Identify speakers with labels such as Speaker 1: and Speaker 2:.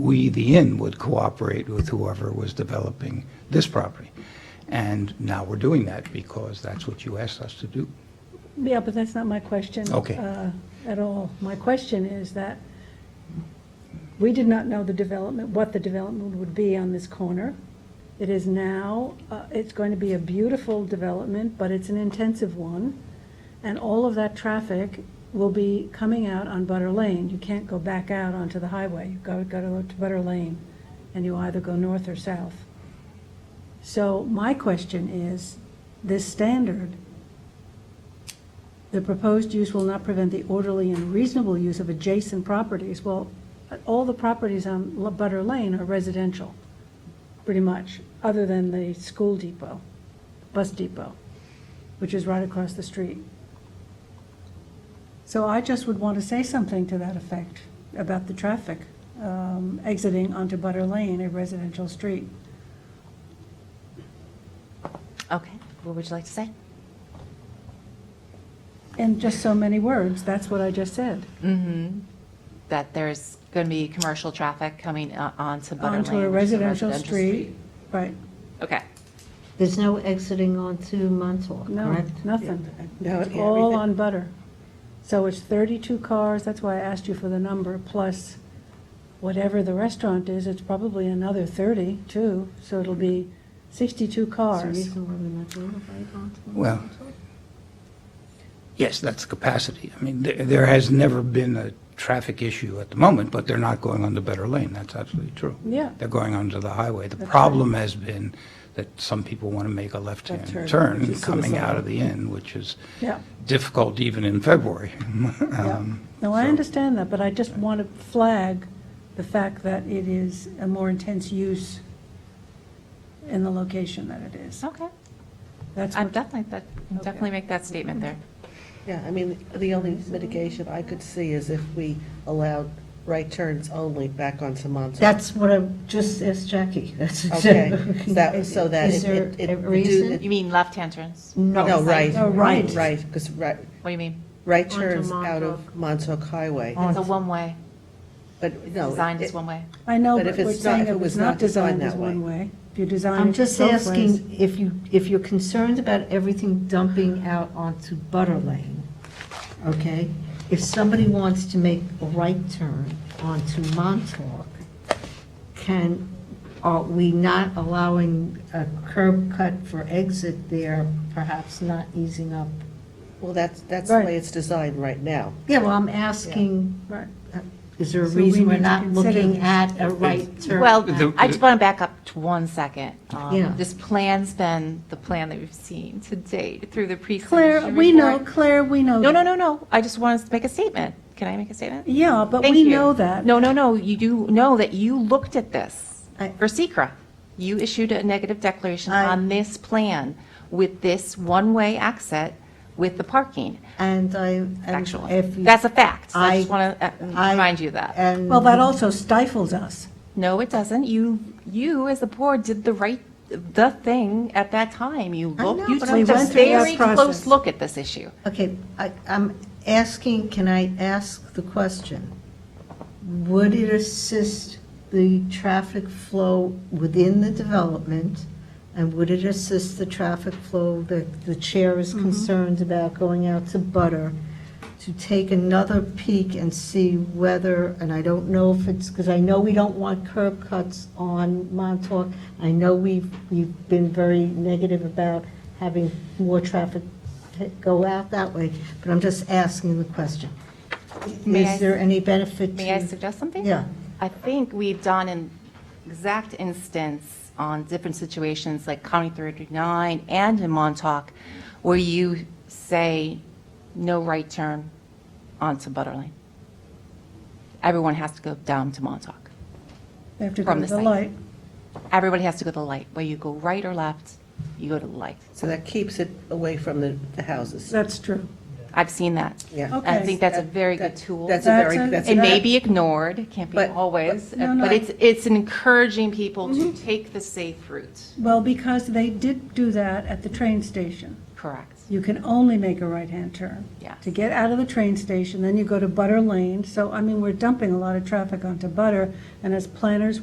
Speaker 1: we, the inn, would cooperate with whoever was developing this property. And now we're doing that because that's what you asked us to do.
Speaker 2: Yeah, but that's not my question.
Speaker 1: Okay.
Speaker 2: uh, At all. My question is that we did not know the development, what the development would be on this corner. It is now, uh, it's going to be a beautiful development, but it's an intensive one. And all of that traffic will be coming out on Butter Lane. You can't go back out onto the highway. You've got to go to Butter Lane, and you either go north or south. So my question is, this standard, the proposed use will not prevent the orderly and reasonable use of adjacent properties. Well, all the properties on La- Butter Lane are residential, pretty much, other than the school depot, bus depot, which is right across the street. So I just would want to say something to that effect about the traffic um, exiting onto Butter Lane, a residential street.
Speaker 3: Okay, what would you like to say?
Speaker 2: In just so many words, that's what I just said.
Speaker 3: That there's going to be commercial traffic coming uh, onto Butter Lane?
Speaker 2: Onto a
Speaker 3: which is
Speaker 2: residential street, right,
Speaker 3: Okay.
Speaker 4: There's no exiting onto Montauk,
Speaker 2: no,
Speaker 4: correct?
Speaker 2: nothing.
Speaker 5: No,
Speaker 2: It's all on butter. So it's 32 cars, that's why I asked you for the number, plus whatever the restaurant is, it's probably another 30 too, so it'll be 62
Speaker 4: That's the
Speaker 2: cars.
Speaker 4: reason why we're not doing it right onto Montauk.
Speaker 1: Well, yes, that's capacity. I mean, there, there has never been a traffic issue at the moment, but they're not going on the better lane. That's absolutely true.
Speaker 2: Yeah.
Speaker 1: They're going onto the highway. The
Speaker 2: That's
Speaker 1: problem has been that some people want to make a
Speaker 5: Left turn,
Speaker 1: left-hand
Speaker 5: which
Speaker 1: turn
Speaker 5: is
Speaker 1: coming out
Speaker 5: suicidal.
Speaker 1: of the inn, which is
Speaker 2: Yeah,
Speaker 1: difficult even in February.
Speaker 2: yeah.
Speaker 1: Um,
Speaker 2: No, I
Speaker 1: so-
Speaker 2: understand that, but I just want to flag the fact that it is a more intense use in the location that it is.
Speaker 3: Okay.
Speaker 2: That's
Speaker 3: I'm
Speaker 2: what,
Speaker 3: definitely, that, can
Speaker 2: Okay.
Speaker 3: definitely make that statement there.
Speaker 5: Yeah, I mean, the only mitigation I could see is if we allowed right turns only back onto Montauk.
Speaker 4: That's what I just asked Jackie, that's
Speaker 5: Okay,
Speaker 4: exactly.
Speaker 5: so that- so that
Speaker 4: Is
Speaker 5: it-
Speaker 4: there
Speaker 5: it- it
Speaker 4: a
Speaker 5: do-
Speaker 4: reason?
Speaker 3: You mean left-hand turns?
Speaker 5: No, right.
Speaker 4: Oh, right.
Speaker 5: Right, because right,
Speaker 3: What do you mean?
Speaker 5: right
Speaker 4: Onto
Speaker 5: turns out of Montauk Highway,
Speaker 3: It's a one-way,
Speaker 5: but no.
Speaker 3: Oh, designed as
Speaker 5: it-
Speaker 3: one-way.
Speaker 2: I know,
Speaker 5: But
Speaker 2: but
Speaker 5: if
Speaker 2: we're
Speaker 5: it's not-
Speaker 2: saying
Speaker 5: if
Speaker 2: it was not designed as
Speaker 5: that way.
Speaker 2: one way. If you design
Speaker 4: I'm
Speaker 2: it
Speaker 4: just
Speaker 2: both ways.
Speaker 4: asking if you, if you're concerned about everything dumping out onto Butter Lane, okay? If somebody wants to make a right turn onto Montauk, can, are we not allowing a curb cut for exit there, perhaps not easing up?
Speaker 5: Well, that's, that's the
Speaker 2: Right.
Speaker 5: way it's designed right now.
Speaker 4: Yeah, well, I'm asking,
Speaker 2: Right.
Speaker 4: is there a
Speaker 2: So we
Speaker 4: reason
Speaker 2: need
Speaker 4: we're
Speaker 2: to
Speaker 4: not
Speaker 2: consider
Speaker 4: looking
Speaker 2: this.
Speaker 4: at a right turn?
Speaker 3: Well,
Speaker 1: The-
Speaker 3: I just want to back up to one second. Um,
Speaker 4: Yeah.
Speaker 3: This plan's been the plan that we've seen to date through the pre-submission
Speaker 2: Claire, we know,
Speaker 3: report.
Speaker 2: Claire, we know.
Speaker 3: No, no,
Speaker 2: that.
Speaker 3: no, no. I just want to make a statement. Can I make a statement?
Speaker 2: Yeah, but
Speaker 3: Thank
Speaker 2: we
Speaker 3: you.
Speaker 2: know that.
Speaker 3: No, no, no, you do know that you looked at this
Speaker 4: I-
Speaker 3: for Secra. You issued a negative declaration
Speaker 4: I-
Speaker 3: on this plan with this one-way exit with the parking,
Speaker 4: And I. and
Speaker 3: actually.
Speaker 4: if you-
Speaker 3: That's a fact. I just
Speaker 4: I-
Speaker 3: want to
Speaker 4: I-
Speaker 3: remind you that.
Speaker 4: And.
Speaker 2: Well, that also stifles us.
Speaker 3: No, it doesn't. You, you as the board did the right, the thing at that time. You
Speaker 4: I
Speaker 3: looked,
Speaker 4: know,
Speaker 3: you
Speaker 4: but
Speaker 3: took
Speaker 4: I'm
Speaker 3: a
Speaker 4: just-
Speaker 2: We went
Speaker 3: very
Speaker 2: through that
Speaker 3: close
Speaker 2: process.
Speaker 3: look at this issue.
Speaker 4: Okay, I, I'm asking, can I ask the question? Would it assist the traffic flow within the development? And would it assist the traffic flow that the chair is concerned about going out to Butter? To take another peek and see whether, and I don't know if it's, because I know we don't want curb cuts on Montauk. I know we've, we've been very negative about having more traffic go out that way, but I'm just asking the question.
Speaker 3: May I-
Speaker 4: Is there any benefit to?
Speaker 3: May I suggest something?
Speaker 4: Yeah.
Speaker 3: I think we've done an exact instance on different situations like County 39 and in Montauk where you say no right turn onto Butter Lane. Everyone has to go down to Montauk.
Speaker 2: They have to go
Speaker 3: From
Speaker 2: to
Speaker 3: the
Speaker 2: the
Speaker 3: site.
Speaker 2: light.
Speaker 3: Everybody has to go to the light. Whether you go right or left, you go to the light.
Speaker 5: So that keeps it away from the, the houses.
Speaker 2: That's true.
Speaker 3: I've seen that.
Speaker 5: Yeah.
Speaker 2: Okay.
Speaker 3: I think that's a
Speaker 5: That-
Speaker 3: very good
Speaker 5: that-
Speaker 3: tool.
Speaker 5: That's a
Speaker 2: That's
Speaker 5: very,
Speaker 2: a-
Speaker 5: that's a
Speaker 3: It may
Speaker 5: very-
Speaker 3: be ignored, it can't be
Speaker 5: But-
Speaker 3: always,
Speaker 2: No, no,
Speaker 3: but
Speaker 2: I-
Speaker 3: it's, it's encouraging people to take the safe route.
Speaker 2: Well, because they did do that at the train station.
Speaker 3: Correct.
Speaker 2: You can only make a right-hand turn.
Speaker 3: Yes.
Speaker 2: To get out of the train station, then you go to Butter Lane. So, I mean, we're dumping a lot of traffic onto Butter, and as planners,